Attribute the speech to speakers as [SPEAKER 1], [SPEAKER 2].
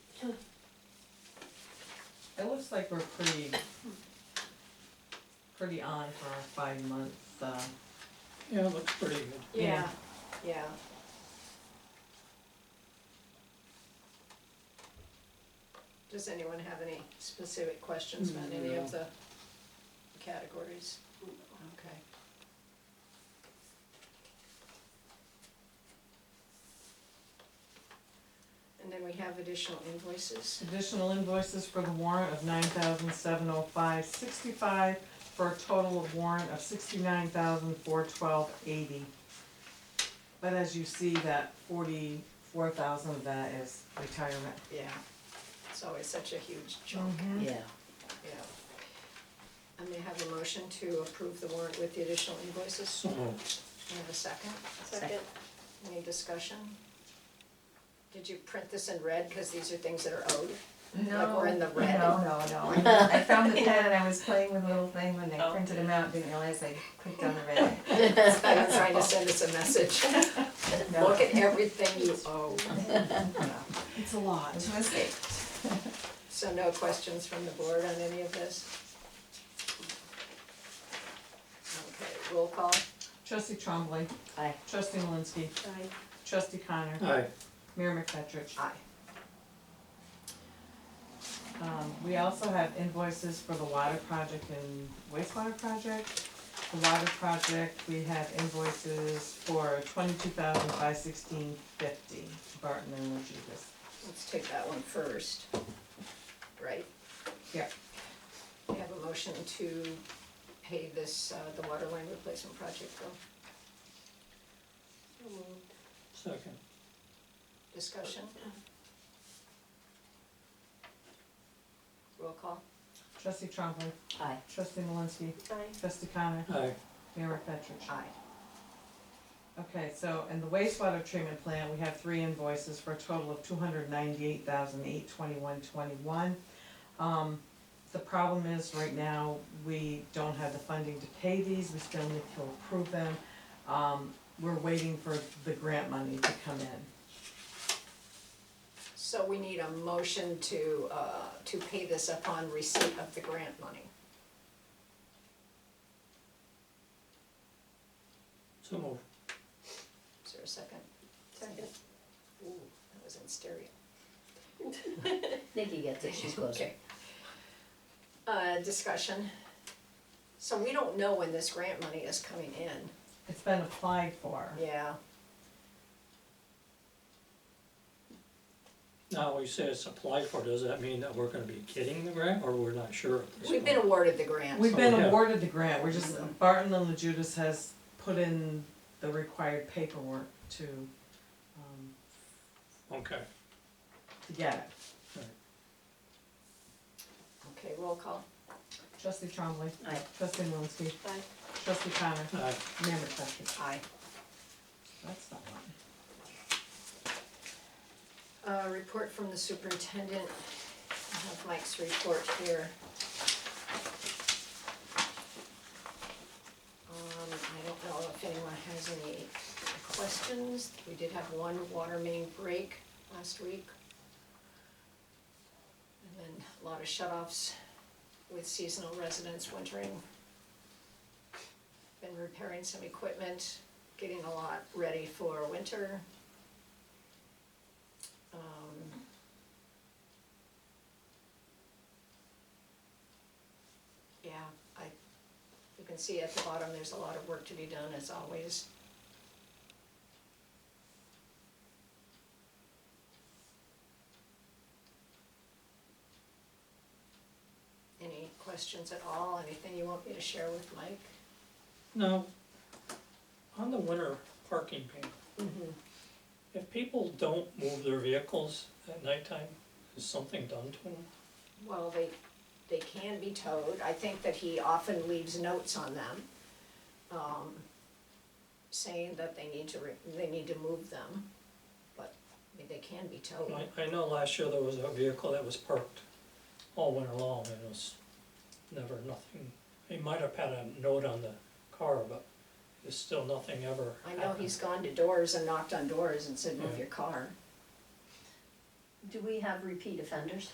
[SPEAKER 1] It looks like we're pretty, pretty on for our five months, uh,
[SPEAKER 2] Yeah, it looks pretty good.
[SPEAKER 3] Yeah, yeah. Does anyone have any specific questions about any of the categories? Okay. And then we have additional invoices.
[SPEAKER 1] additional invoices for the warrant of nine thousand seven oh five sixty-five for a total of warrant of sixty-nine thousand four twelve eighty. But as you see, that forty-four thousand of that is retirement.
[SPEAKER 3] Yeah. It's always such a huge chunk,
[SPEAKER 4] Yeah,
[SPEAKER 3] yeah. I may have a motion to approve the warrant with the additional invoices.
[SPEAKER 2] So moved.
[SPEAKER 3] You have a second?
[SPEAKER 4] Second.
[SPEAKER 3] Any discussion? Did you print this in red, cause these are things that are owed? Like we're in the red.
[SPEAKER 5] No, no, no, no. I found the pen and I was playing with the little thing when I printed them out, didn't realize I clicked on the red.
[SPEAKER 3] I'm trying to send us a message,
[SPEAKER 5] No,
[SPEAKER 3] look at everything you owe.
[SPEAKER 1] It's a lot.
[SPEAKER 5] It's a mistake.
[SPEAKER 3] So no questions from the board on any of this? Okay, roll call.
[SPEAKER 1] Trustee Trombley.
[SPEAKER 4] Aye.
[SPEAKER 1] Trustee Malinsky.
[SPEAKER 3] Aye.
[SPEAKER 1] Trustee Connor.
[SPEAKER 2] Aye,
[SPEAKER 1] Mayor McFetrich.
[SPEAKER 3] Aye.
[SPEAKER 1] Um, we also have invoices for the water project and wastewater project. The water project, we have invoices for twenty-two thousand five sixteen fifty, Barton and Lujudis.
[SPEAKER 3] Let's take that one first, right?
[SPEAKER 1] Yeah.
[SPEAKER 3] We have a motion to pay this, uh, the water line replacement project bill.
[SPEAKER 2] second.
[SPEAKER 3] Discussion? Roll call.
[SPEAKER 1] Trustee Trombley,
[SPEAKER 4] aye.
[SPEAKER 1] trustee Malinsky,
[SPEAKER 3] Aye.
[SPEAKER 1] trustee Connor,
[SPEAKER 2] Aye,
[SPEAKER 1] Mayor McFetrich.
[SPEAKER 3] Aye.
[SPEAKER 1] Okay, so in the wastewater treatment plant, we have three invoices for a total of two hundred ninety-eight thousand eight twenty-one twenty-one. Um, the problem is, right now, we don't have the funding to pay these, we still need to approve them. Um, we're waiting for the grant money to come in.
[SPEAKER 3] So we need a motion to, uh, to pay this upon receipt of the grant money.
[SPEAKER 2] so moved.
[SPEAKER 3] Is there a second? Second. Ooh, that was in stereo.
[SPEAKER 4] Nikki gets it, she's closer.
[SPEAKER 3] Okay. Uh, discussion. So we don't know when this grant money is coming in.
[SPEAKER 1] It's been applied for.
[SPEAKER 3] Yeah.
[SPEAKER 2] Now, we say it's applied for, does that mean that we're gonna be getting the grant, or we're not sure? at this
[SPEAKER 3] We've been
[SPEAKER 2] point?
[SPEAKER 3] awarded the grant.
[SPEAKER 1] We've been
[SPEAKER 2] Oh, yeah.
[SPEAKER 1] awarded the grant, we're just, Barton and La Judas has put in the required paperwork to, um,
[SPEAKER 2] Okay,
[SPEAKER 1] to get it.
[SPEAKER 3] Okay, roll call.
[SPEAKER 1] Trustee Trombley.
[SPEAKER 4] Aye.
[SPEAKER 1] Trustee Malinsky.
[SPEAKER 3] Aye.
[SPEAKER 1] Trustee Connor.
[SPEAKER 2] aye,
[SPEAKER 1] Mayor McFetrich.
[SPEAKER 3] Aye.
[SPEAKER 1] That's not one.
[SPEAKER 3] Uh, report from the superintendent. I have Mike's report here. Um, I don't know if anyone has any questions. We did have one water main break last week. And then a lot of shut-offs with seasonal residents wintering. Been repairing some equipment, getting a lot ready for winter. Um, Yeah, I, you can see at the bottom, there's a lot of work to be done as always. Any questions at all, anything you want me to share with Mike?
[SPEAKER 2] now, on the winter parking ban,
[SPEAKER 3] Mm-hmm.
[SPEAKER 2] if people don't move their vehicles at nighttime, is something done to them?
[SPEAKER 3] Well, they, they can be towed, I think that he often leaves notes on them, um, saying that they need to, re- they need to move them, but, I mean, they can be towed.
[SPEAKER 2] Oh, I, I know last year there was a vehicle that was parked all winter long, and it was never nothing, he might have had a note on the car, but there's still nothing ever
[SPEAKER 3] I
[SPEAKER 2] happened.
[SPEAKER 3] know he's gone to doors and knocked on doors and said, move your car.
[SPEAKER 4] do we have repeat offenders?